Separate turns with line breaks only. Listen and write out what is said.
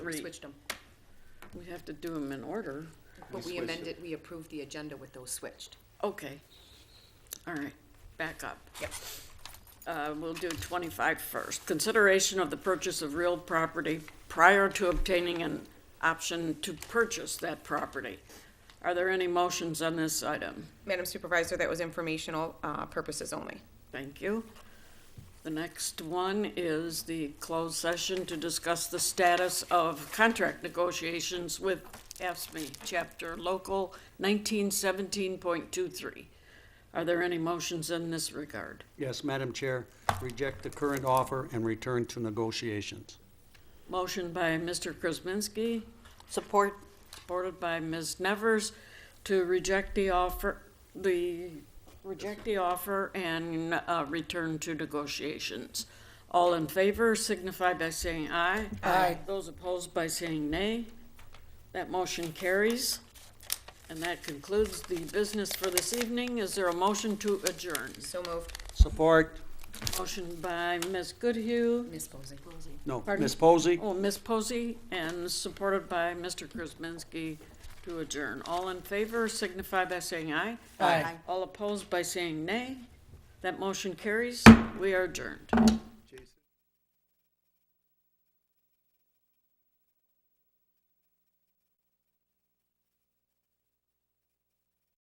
We
three.
switched them.
We'd have to do them in order.
But we
switched it.
amended, we approved the agenda with those switched.
Okay. All right, back up.
Yep.
Uh, we'll do 25 first. Consideration of the purchase of real property prior to obtaining an option to purchase that property. Are there any motions on this item?
Madam Supervisor, that was informational uh, purposes only.
Thank you. The next one is the closed session to discuss the status of contract negotiations with AFSMI, Chapter Local 1917.23. Are there any motions in this regard?
Yes, Madam Chair, reject the current offer and return to negotiations.
Motion by Mr. Krasinski,
Support.
supported by Ms. Nevers, to reject the offer, the, reject the offer and uh, return to negotiations. All in favor signify by saying aye. Aye. Those opposed by saying nay. That motion carries. And that concludes the business for this evening. Is there a motion to adjourn?
So moved.
Support,
Motion by Ms. Goodhue.
Ms. Posey.
no,
Pardon?
Ms. Posey?
Oh, Ms. Posey, and supported by Mr. Krasinski to adjourn. All in favor signify by saying aye. Aye. All opposed by saying nay. That motion carries. We are adjourned.